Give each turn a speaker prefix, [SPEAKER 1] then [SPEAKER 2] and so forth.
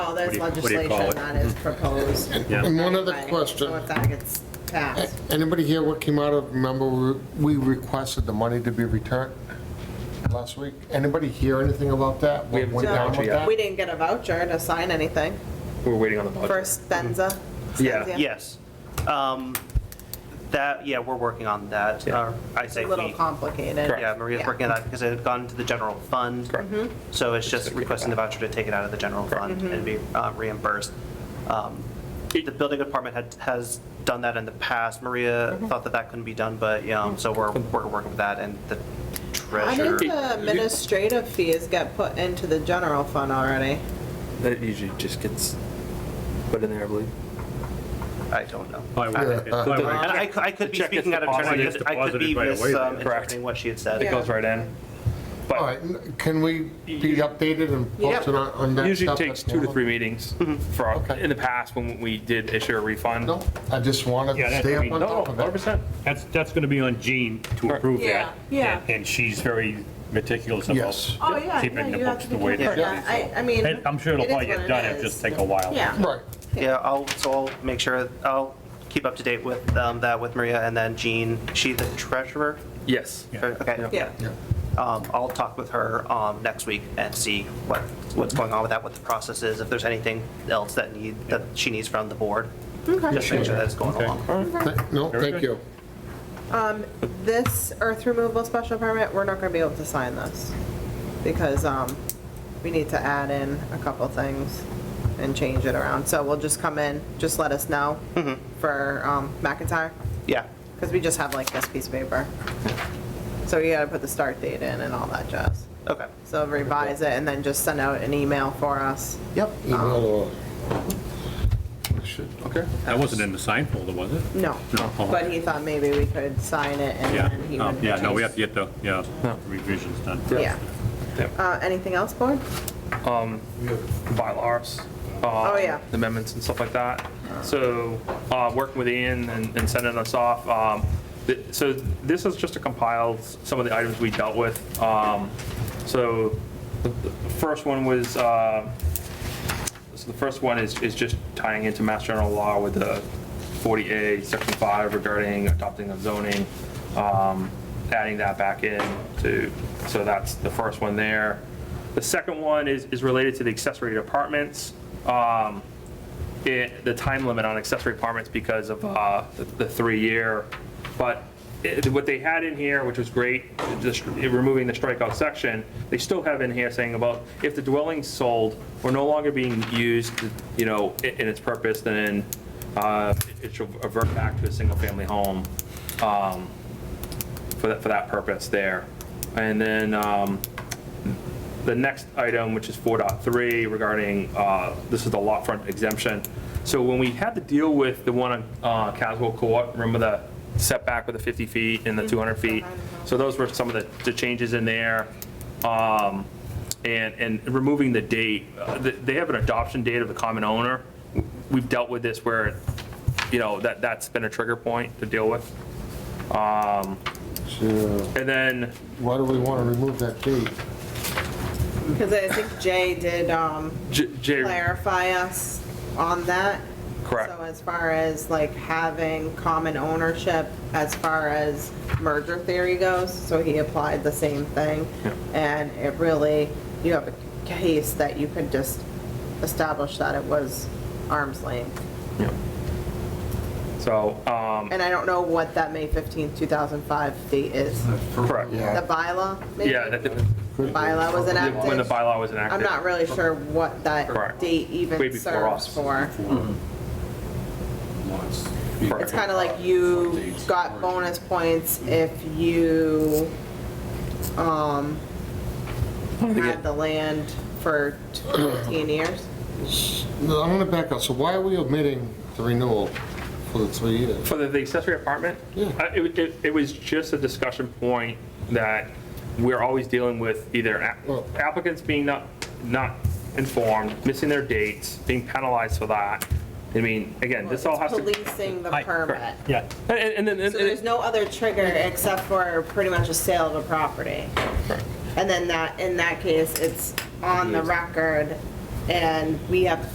[SPEAKER 1] there's
[SPEAKER 2] what do you- what do you
[SPEAKER 1] Oh, legislation
[SPEAKER 2] call it?
[SPEAKER 1] that is proposed.
[SPEAKER 2] Yeah.
[SPEAKER 3] And one other
[SPEAKER 1] Right.
[SPEAKER 3] question.
[SPEAKER 1] So if that gets passed,
[SPEAKER 3] Anybody here what came out of, remember, we we requested the money to be returned last week? Anybody hear anything about that?
[SPEAKER 2] We haven't
[SPEAKER 3] What went
[SPEAKER 2] seen
[SPEAKER 3] down
[SPEAKER 2] that
[SPEAKER 3] with
[SPEAKER 2] yet.
[SPEAKER 3] that?
[SPEAKER 1] we didn't get a voucher to sign anything
[SPEAKER 2] We're waiting on the budget.
[SPEAKER 1] for Stenza.
[SPEAKER 2] Mm-hmm. Yeah,
[SPEAKER 1] Stenza.
[SPEAKER 4] Yes. Um, That, yeah, we're working on that.
[SPEAKER 2] Yeah.
[SPEAKER 4] Uh, I say
[SPEAKER 1] A little
[SPEAKER 4] we,
[SPEAKER 1] complicated.
[SPEAKER 4] yeah, Maria's
[SPEAKER 1] Yeah. Mm-hmm.
[SPEAKER 4] working on that because it had gone into the general fund. So it's just
[SPEAKER 2] gonna kick it
[SPEAKER 4] requesting the
[SPEAKER 2] back.
[SPEAKER 4] voucher to take it out of the general fund and be uh, reimbursed. Um, The building department had, has done that in the past. Maria
[SPEAKER 1] Mm-hmm.
[SPEAKER 4] thought that that couldn't be done, but, you know, so we're,
[SPEAKER 2] Mm-hmm.
[SPEAKER 4] we're working with that and the
[SPEAKER 1] I
[SPEAKER 4] treasurer.
[SPEAKER 1] think the administrative fees get put into the general fund already.
[SPEAKER 5] That usually just gets put in there, I believe.
[SPEAKER 4] I don't know.
[SPEAKER 2] Why would it- why would it-
[SPEAKER 3] uh,
[SPEAKER 4] And I, cou- I could be
[SPEAKER 2] The check gets
[SPEAKER 4] speaking out of turn. I
[SPEAKER 2] deposited-
[SPEAKER 4] could- I could be
[SPEAKER 2] deposited right away, though.
[SPEAKER 4] misinterpreting what she had said.
[SPEAKER 1] Yeah.
[SPEAKER 5] It goes right in.
[SPEAKER 3] All right, can we be updated and posted on on that?
[SPEAKER 5] Usually
[SPEAKER 3] stuff that's
[SPEAKER 5] takes two to
[SPEAKER 3] going
[SPEAKER 5] three meetings for, our-
[SPEAKER 3] Okay.
[SPEAKER 5] in the past, when we did issue a refund.
[SPEAKER 3] on? No, I just wanted
[SPEAKER 2] Yeah,
[SPEAKER 3] to
[SPEAKER 2] that-
[SPEAKER 3] uh, stay
[SPEAKER 2] I
[SPEAKER 3] up
[SPEAKER 2] mean,
[SPEAKER 3] on
[SPEAKER 2] no,
[SPEAKER 3] top of it.
[SPEAKER 2] 100%. That's, that's going to be on Jean to approve that.
[SPEAKER 1] Yeah, yeah.
[SPEAKER 2] And she's very meticulous
[SPEAKER 3] Yes.
[SPEAKER 2] about
[SPEAKER 1] Oh, yeah, yeah,
[SPEAKER 2] keeping the
[SPEAKER 1] you have
[SPEAKER 2] books
[SPEAKER 1] to
[SPEAKER 2] the
[SPEAKER 1] be
[SPEAKER 2] way
[SPEAKER 1] careful.
[SPEAKER 2] they
[SPEAKER 1] Yeah, I, I mean.
[SPEAKER 2] And I'm sure it'll
[SPEAKER 1] it is
[SPEAKER 2] probably
[SPEAKER 1] what
[SPEAKER 2] get
[SPEAKER 1] it
[SPEAKER 2] done, it'll
[SPEAKER 1] is.
[SPEAKER 2] just take a while.
[SPEAKER 1] Yeah.
[SPEAKER 3] Right,
[SPEAKER 4] Yeah, I'll, so I'll make sure, I'll keep up to date with um, that with Maria and then Jean, she the treasurer?
[SPEAKER 5] Yes.
[SPEAKER 2] Yeah.
[SPEAKER 4] Okay, yeah.
[SPEAKER 1] Yeah.
[SPEAKER 4] Um, I'll talk with her um, next week and see what, what's going on with that, what the process is, if there's anything else that need, that she needs from the board. Just make sure that's going
[SPEAKER 2] Okay.
[SPEAKER 4] along.
[SPEAKER 3] Th- no,
[SPEAKER 2] Very
[SPEAKER 3] thank
[SPEAKER 2] good.
[SPEAKER 3] you.
[SPEAKER 1] This earth removal special permit, we're not gonna be able to sign this because, um, we need to add in a couple things and change it around. So we'll just come in, just let us know for, um, McIntyre,
[SPEAKER 4] Yeah,
[SPEAKER 1] because we just have like this piece of paper. So you gotta put the start date in and all that jazz.
[SPEAKER 4] okay.
[SPEAKER 1] So revise it and then just send out an email for us.
[SPEAKER 4] Yep.
[SPEAKER 3] Email or- I should- Okay.
[SPEAKER 2] That wasn't in the sign folder, was it?
[SPEAKER 1] No,
[SPEAKER 2] No.
[SPEAKER 1] but he thought maybe we could sign it and
[SPEAKER 2] Yeah,
[SPEAKER 1] then he
[SPEAKER 2] um,
[SPEAKER 1] would.
[SPEAKER 2] yeah, no, we have to get the, yeah, revisions done.
[SPEAKER 1] Yeah. Uh, anything else, board?
[SPEAKER 5] bylaws.
[SPEAKER 2] Uh,
[SPEAKER 1] Oh, yeah.
[SPEAKER 5] Amendments and stuff like that. So, uh, working with Ian and and sending us off, um, th- so this is just to compile s- some of the items we dealt with. Um, So, the the first one was, uh, so the first one is, is just tying into Mass General Law with the 40A, Section 5 regarding adopting of zoning, um, adding that back in to, so that's the first one there. The second one is, is related to the accessory apartments, um, it- the time limit on accessory apartments because of uh, the- the three-year. But it- what they had in here, which was great, just removing the strikeout section, they still have in here saying about if the dwelling's sold or no longer being used, you know, i- in its purpose, then uh, it should revert back to a single-family home um, for that, for that purpose there. And then um, the next item, which is 4.3 regarding, uh, this is the lot front exemption. So when we had to deal with the one on uh, Caswell Court, remember the setback with the 50 feet and the 200 feet? So those were some of the- the changes in there. Um, And, and removing the date, Uh, th- they have an adoption date of the common owner. We've dealt with this where, you know, that, that's been a trigger point to deal with. Um,
[SPEAKER 3] So, uh,
[SPEAKER 5] And then
[SPEAKER 3] Why do we want to remove that date?
[SPEAKER 1] Because I think Jay did, um,
[SPEAKER 5] J- Jay.
[SPEAKER 1] clarify us on that.
[SPEAKER 5] Correct.
[SPEAKER 1] So as far as like having common ownership, as far as merger theory goes, so he applied the same thing. And it really, you have a case that you could just establish that it was arm's length.
[SPEAKER 5] So, um,
[SPEAKER 1] And I don't know what that May 15th, 2005 date is.
[SPEAKER 5] correct.
[SPEAKER 1] The
[SPEAKER 3] Yeah.
[SPEAKER 1] bylaw, maybe?
[SPEAKER 5] Yeah, that-
[SPEAKER 1] Bylaw was enacted.
[SPEAKER 5] when the bylaw was enacted.
[SPEAKER 1] I'm not really sure what that
[SPEAKER 5] Correct.
[SPEAKER 1] date
[SPEAKER 5] Way
[SPEAKER 1] even
[SPEAKER 5] before
[SPEAKER 1] serves
[SPEAKER 5] us.
[SPEAKER 1] for.
[SPEAKER 6] Lots.
[SPEAKER 1] It's kind of like you got bonus points if you, um, had the land for 15 years.
[SPEAKER 3] No, I'm going to back up. So why are we omitting the renewal for the three years?
[SPEAKER 5] For the- the accessory apartment?
[SPEAKER 3] Yeah.
[SPEAKER 5] Uh, It, wa- it- it was just a discussion point that we're always dealing with either a-
[SPEAKER 3] Well-
[SPEAKER 5] applicants being not, not informed, missing their dates, being penalized for that. I mean, again, this all has to.
[SPEAKER 1] Policing the permit.
[SPEAKER 2] Yeah.
[SPEAKER 5] And, and then. and-
[SPEAKER 1] So there's no other trigger except for pretty much a sale of a property. And then that, in that case, it's on the record and we have to